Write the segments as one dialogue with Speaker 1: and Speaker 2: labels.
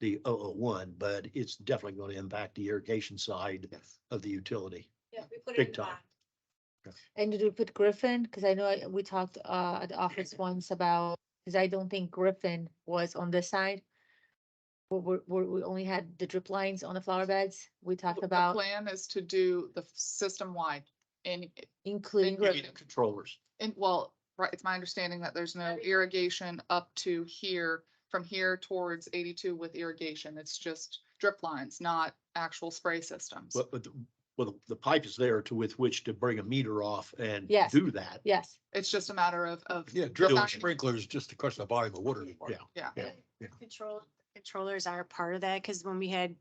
Speaker 1: the 001, but it's definitely going to impact the irrigation side
Speaker 2: Yes.
Speaker 1: of the utility.
Speaker 3: Yeah, we put it
Speaker 1: Big
Speaker 3: in
Speaker 1: time.
Speaker 3: black.
Speaker 4: And did we put Griffin? Because I know I- we talked uh at the office once about, because I don't think Griffin was on this side. We we we we only had the drip lines on the flower beds. We talked
Speaker 2: The
Speaker 4: about
Speaker 2: Plan is to do the system wide and,
Speaker 4: including
Speaker 2: Thank
Speaker 1: Maybe
Speaker 4: Griffin.
Speaker 1: the Controllers.
Speaker 2: and well, right, it's my understanding that there's no
Speaker 3: Everything.
Speaker 2: irrigation up to here. From here towards eighty-two with irrigation, it's just drip lines, not actual spray systems.
Speaker 1: But, but, the- well, the- the pipe is there to with which to bring a meter off and
Speaker 4: Yes.
Speaker 1: do that.
Speaker 4: Yes,
Speaker 2: It's just a matter of, of.
Speaker 5: Yeah, drip
Speaker 1: Doing-
Speaker 5: and sprinklers just to crush the volume of water. in the park.
Speaker 1: Yeah.
Speaker 5: Yeah, yeah.
Speaker 6: Control, controllers are part of that, because when we had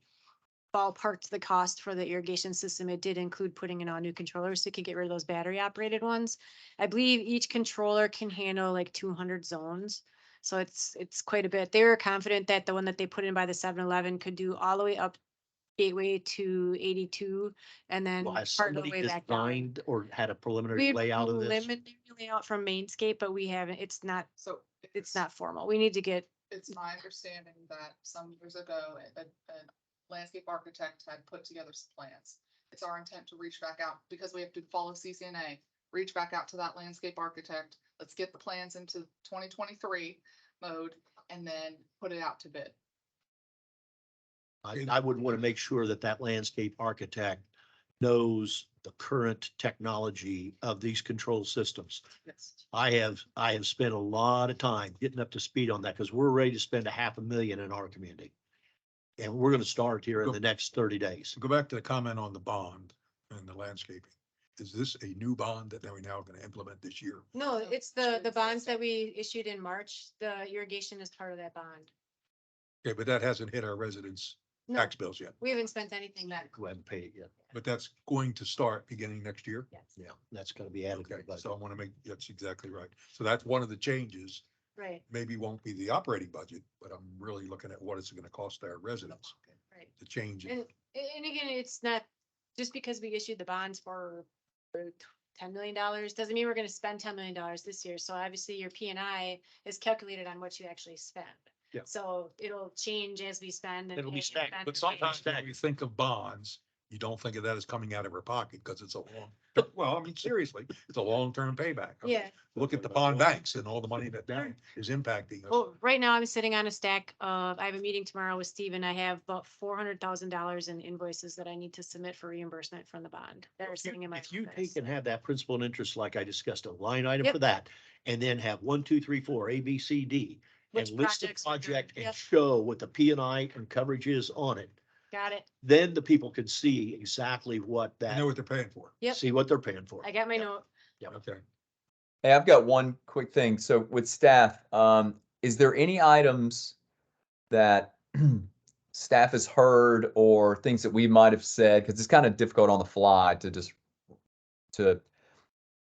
Speaker 6: ballparked the cost for the irrigation system, it did include putting in all new controllers, so we could get rid of those battery operated ones. I believe each controller can handle like two hundred zones, so it's, it's quite a bit. They were confident that the one that they put in by the 7-Eleven could do all the way up gateway to eighty-two, and then
Speaker 1: Well, has
Speaker 6: part of the
Speaker 1: somebody
Speaker 6: way back down.
Speaker 1: designed or had a preliminary
Speaker 6: We had
Speaker 1: layout of this?
Speaker 6: preliminary Layout from Mainscape, but we haven't, it's not,
Speaker 2: So.
Speaker 6: it's not formal. We need to get
Speaker 2: it's my understanding that some years ago, a, a- a landscape architect had put together some plans. It's our intent to reach back out, because we have to follow CCNA, reach back out to that landscape architect. Let's get the plans into twenty twenty-three mode and then put it out to bid.
Speaker 1: I, I would want to make sure that that landscape architect knows the current technology of these control systems. I have, I have spent a lot of time getting up to speed on that because we're ready to spend a half a million in our community. And we're going to start here in the next thirty days.
Speaker 5: To go back to the comment on the bond and the landscaping, is this a new bond that we now going to implement this year?
Speaker 6: No,
Speaker 2: So
Speaker 6: it's
Speaker 2: it's
Speaker 6: the,
Speaker 2: your
Speaker 6: the bonds
Speaker 2: existing.
Speaker 6: that we issued in March, the irrigation is part of that bond.
Speaker 5: Okay, but that hasn't hit our residents'
Speaker 6: No,
Speaker 5: tax bills yet,
Speaker 6: we haven't spent anything yet.
Speaker 1: Go ahead and pay it yet.
Speaker 5: but that's going to start beginning next year.
Speaker 6: Yes,
Speaker 1: Yeah, that's going to be added to
Speaker 5: Okay,
Speaker 1: the budget.
Speaker 5: so I want to make, that's exactly right. So that's one of the changes.
Speaker 6: right,
Speaker 5: Maybe won't be the operating budget, but I'm really looking at what it's going to cost our residents
Speaker 6: right.
Speaker 5: to change
Speaker 6: And,
Speaker 5: it.
Speaker 6: and again, it's not, just because we issued the bonds for for t- ten million dollars, doesn't mean we're gonna spend ten million dollars this year. So obviously your P and I is calculated on what you actually spend.
Speaker 1: Yeah.
Speaker 6: So it'll change as we spend. and
Speaker 1: It'll be
Speaker 6: as we
Speaker 1: stacked,
Speaker 6: spend
Speaker 5: But
Speaker 6: and
Speaker 5: sometimes
Speaker 6: spend.
Speaker 5: when we think of bonds, you don't think of that as coming out of our pocket because it's a long, well, I mean, seriously, it's a long-term payback. I mean,
Speaker 6: Yeah.
Speaker 5: Look at the
Speaker 1: uh,
Speaker 5: bond banks and all the money that that is impacting us.
Speaker 6: Well, right now I'm sitting on a stack of, I have a meeting tomorrow with Steve and I have about four hundred thousand dollars in invoices that I need to submit for reimbursement from the bond that are
Speaker 1: If you-
Speaker 6: sitting in my
Speaker 1: If you
Speaker 6: office.
Speaker 1: take and have that principal and interest, like I discussed, a line item
Speaker 6: Yep.
Speaker 1: for that, and then have one, two, three, four, A, B, C, D, and
Speaker 6: Which
Speaker 1: list the
Speaker 6: projects we're doing.
Speaker 1: project and
Speaker 6: Yep.
Speaker 1: show what the P and I and coverage is on it,
Speaker 6: Got it.
Speaker 1: then the people can see exactly what
Speaker 5: They know
Speaker 1: that,
Speaker 5: what they're paying for.
Speaker 6: Yep.
Speaker 1: see what they're paying for.
Speaker 6: I got my
Speaker 1: Yep.
Speaker 6: note.
Speaker 5: Okay.
Speaker 7: Hey, I've got one quick thing. So with staff, um, is there any items that staff has heard or things that we might have said? Because it's kind of difficult on the fly to just to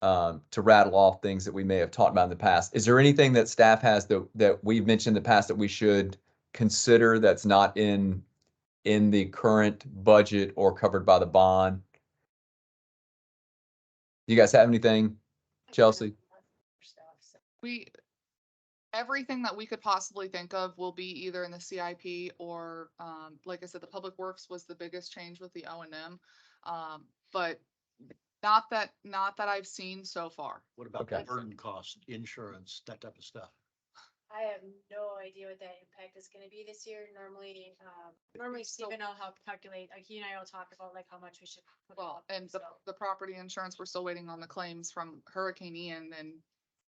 Speaker 7: um, to rattle off things that we may have talked about in the past. Is there anything that staff has that that we've mentioned in the past that we should consider that's not in in the current budget or covered by the bond? You guys have anything? Chelsea.
Speaker 2: We, everything that we could possibly think of will be either in the CIP or, um, like I said, the Public Works was the biggest change with the O and M. Um, but not that, not that I've seen so far.
Speaker 1: What about
Speaker 7: Okay.
Speaker 1: burden cost, insurance, that type of stuff?
Speaker 6: I have no idea what that impact is gonna be this year. Normally, um, normally Steve and I'll help calculate, like he and I will talk about like how much we should. put
Speaker 2: Well,
Speaker 6: out,
Speaker 2: and the,
Speaker 6: so.
Speaker 2: the property insurance, we're still waiting on the claims from Hurricane Ian and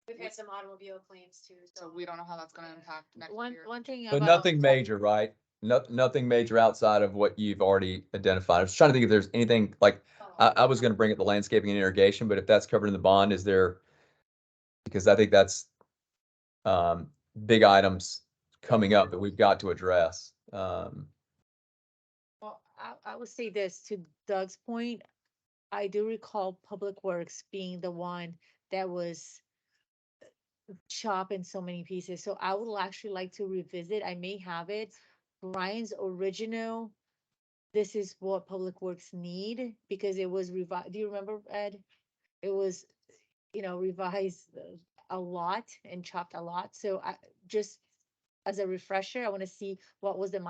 Speaker 6: We've had some automobile claims too.
Speaker 2: so we don't know how that's gonna impact next
Speaker 4: One,
Speaker 2: year.
Speaker 4: one thing.
Speaker 7: But
Speaker 4: about-
Speaker 7: nothing major, right? No, nothing major outside of what you've already identified. I was trying to think if there's anything, like, I, I was gonna bring up the landscaping and irrigation, but if that's covered in the bond, is there? Because I think that's, um, big items coming up that we've got to address. Um,
Speaker 4: Well, I, I would say this to Doug's point. I do recall Public Works being the one that was uh, chopped in so many pieces. So I would actually like to revisit. I may have it. Brian's original. This is what Public Works need because it was revised. Do you remember, Ed? It was, you know, revised uh, a lot and chopped a lot. So I just as a refresher, I want to see what was the